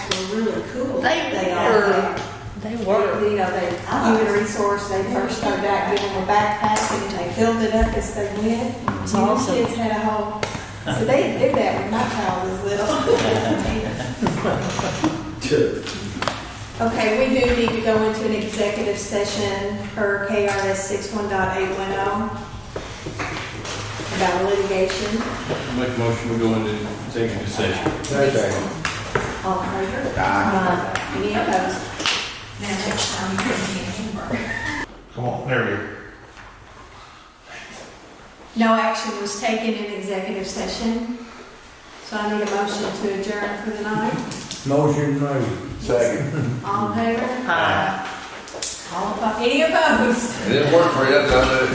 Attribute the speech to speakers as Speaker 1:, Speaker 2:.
Speaker 1: really cool.
Speaker 2: They
Speaker 1: are.
Speaker 2: were, they were.
Speaker 1: You know, they, human resource, they first started out giving them a backpack and they filled it up as they went.
Speaker 2: It's
Speaker 1: All the
Speaker 2: awesome.
Speaker 1: kids had a whole, so they did that when my child was little. Okay, we do need to go into an executive session per KRS six one oh about litigation.
Speaker 3: Make a motion, we go into executive session.
Speaker 1: All in favor? Any opposed?
Speaker 4: Now, next time you're in Hamburg.
Speaker 5: Come on, there we go.
Speaker 1: No action was taken in executive session, so I need a motion to adjourn for the night.
Speaker 6: Motion made.
Speaker 7: Second.
Speaker 1: All in favor?
Speaker 2: Aye.
Speaker 1: All opposed? Any opposed?
Speaker 7: It didn't work for you, does it?